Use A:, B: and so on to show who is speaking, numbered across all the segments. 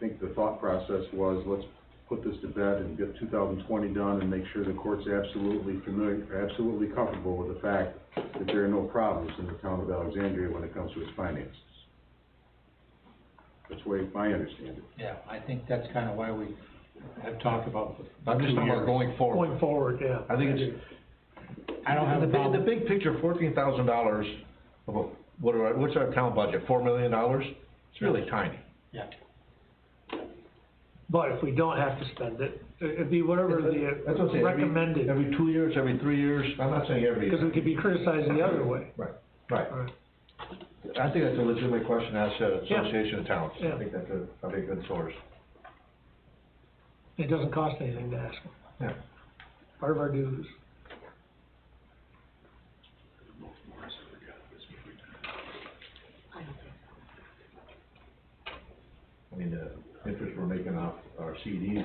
A: think the thought process was, let's put this to bed and get two thousand twenty done and make sure the court's absolutely familiar, absolutely comfortable with the fact that there are no problems in the town of Alexandria when it comes to its finances. That's the way I understand it.
B: Yeah, I think that's kind of why we have talked about the
C: I'm just talking about going forward.
D: Going forward, yeah.
C: I think it's,
B: I don't have a
C: the big, the
B: problem.
C: big picture, fourteen thousand dollars, what are, our- what's our town budget, four million dollars? It's really tiny.
B: Yeah,
D: But if we don't have to spend it, it- it'd be whatever
C: That's what I'm
D: the uh,
C: saying, every-
D: recommended,
C: Every two years, every three years, I'm not saying every.
D: because we could be criticized the other way.
C: Right, right.
D: Alright.
C: I think that's a legitimate question asked at
D: Yeah.
C: Association of Towns.
D: Yeah.
C: I think that's a, probably a good source.
D: It doesn't cost anything to ask them.
C: Yeah.
D: Part of our dues.
C: I mean, the interest we're making off our CDs,
D: Yeah,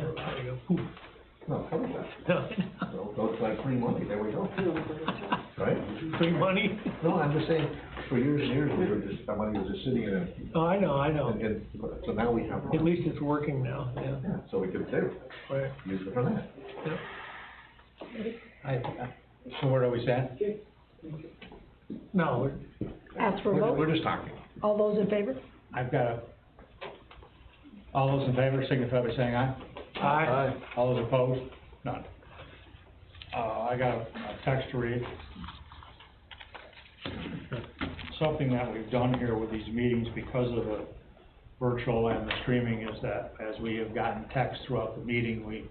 D: there you go. Ooh.
C: no, cover that.
D: Yeah.
C: So, so it's like free money, there we go. Right?
D: Free money?
C: No, I'm just saying, for years and years, we were just, our money was just sitting in, a-
D: Oh, I know, I know.
C: and, and, so now we have.
D: At least it's working now, yeah,
C: Yeah, so we could save,
D: right,
C: use it for that.
D: yeah.
B: I, I, so where are we at?
D: No, we're-
E: Ask for a
C: We're,
E: vote.
C: we're just talking.
E: All those in favor?
B: I've got a, all those in favor signify by saying aye.
D: I,
B: All those opposed? None. Uh, I got a a text to read. Something that we've done here with these meetings because of the virtual and the streaming is that as we have gotten texts throughout the meeting, we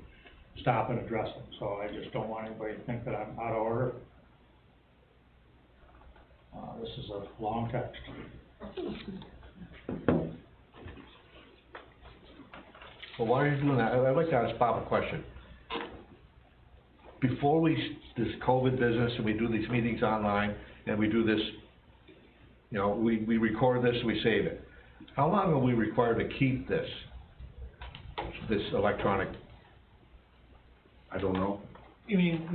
B: stop and address them. So I just don't want anybody to think that I'm out of order. Uh, this is a long text.
C: Well, why are you doing that? I- I'd like to ask Bob a question. Before we, s- this COVID business, and we do these meetings online, and we do this, you know, we, we record this, we save it. How long are we required to keep this, this electronic?
A: I don't know.
D: you mean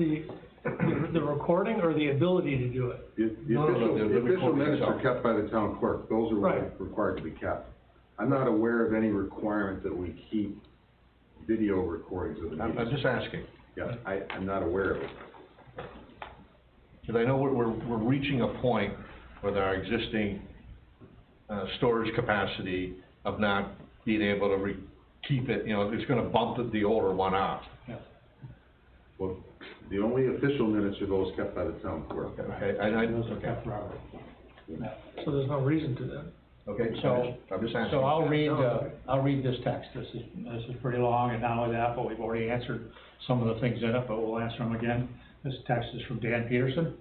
D: the, the recording or the ability to do it?
A: The the
C: No, no, no,
A: official, the
C: they're- they're
A: official
C: recording
A: minutes are
C: themselves.
A: kept by the town clerk, those are
D: Right.
A: required to be kept. I'm not aware of any requirement that we keep video recordings of the
C: I'm, I'm
A: meetings.
C: just asking,
A: Yeah, I, I'm not aware of it.
C: because I know we're, we're, we're reaching a point with our existing, uh, storage capacity of not being able to re, keep it, you know, it's gonna bump the- the older one out.
A: Well, the only official minutes are those kept by the town clerk.
C: Okay, and I,
B: Those are
C: okay.
B: kept forever.
D: So there's no reason to that.
C: Okay,
B: So-
C: so, I'm just asking.
B: So I'll read, uh, I'll read this text, this is, this is pretty long, and not only that, but we've already answered some of the things in it, but we'll answer them again. This text is from Dan Peterson.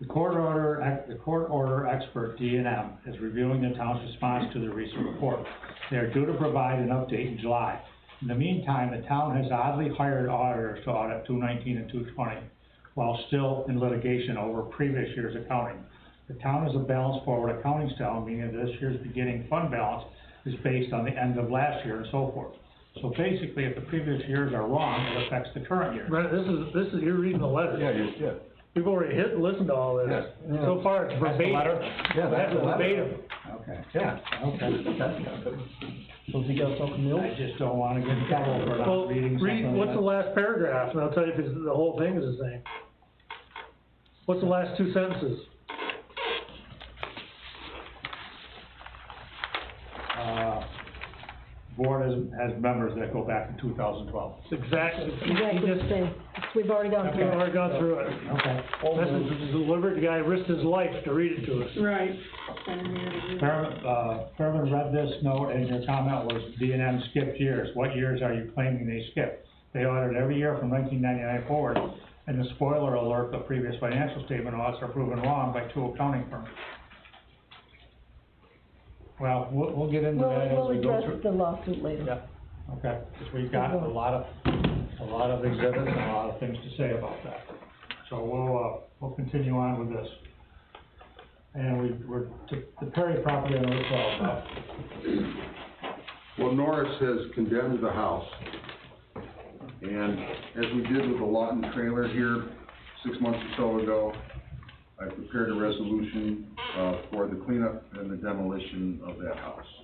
B: The court order, ex- the court order expert, D and M, is reviewing the town's response to the recent report. They are due to provide an update in July. In the meantime, the town has oddly hired auditors to audit two nineteen and two twenty, while still in litigation over previous year's accounting. The town is a balanced forward accounting style, meaning that this year's beginning fund balance is based on the end of last year and so forth. So basically, if the previous years are wrong, it affects the current year.
D: Right, this is, this is, you're reading the
C: Yeah,
D: letter.
C: you, yeah,
D: We've already hit, and listened to all this.
C: Yeah.
D: So far, it's
B: That's the
D: verbatim.
B: letter?
C: yeah, that's
D: That's
C: a letter.
D: verbatim.
B: Okay,
C: Yeah.
B: okay.
F: So if you got something else?
B: I just don't wanna get in trouble for
D: Well,
B: not reading
D: read,
B: something
D: what's the
B: that.
D: last paragraph, and I'll tell you if it's, the whole thing is the same. What's the last two sentences?
B: Uh, Board has, has members that go back to two thousand twelve.
D: It's exactly, he
E: Exactly the
D: just,
E: same. We've already gone
D: we've
E: through it.
D: already gone through it.
B: Okay.
D: This is deliberate, the guy risked his life to read it to us.
G: Right. And we already-
B: Fairman, uh, Fairman read this note and your comment was D and M skipped years. What years are you claiming they skipped? They audited every year from nineteen ninety-nine forward. And the spoiler alert, the previous financial statement audits are proven wrong by two accounting firms. Well, we'll, we'll get into
E: We'll,
B: that as
E: we'll
B: we go
E: address
B: through.
E: the lawsuit later.
B: Yeah, okay, because we've got a lot of, a lot of exhibits and a lot of things to say about that. So we'll, uh, we'll continue on with this. And we, we're, the Perry property on uh, Route twelve, now.
A: Well, Norris has condemned the house, and as we did with the Lawton trailer here six months or so ago, I prepared a resolution, uh, for the cleanup and the demolition of that house.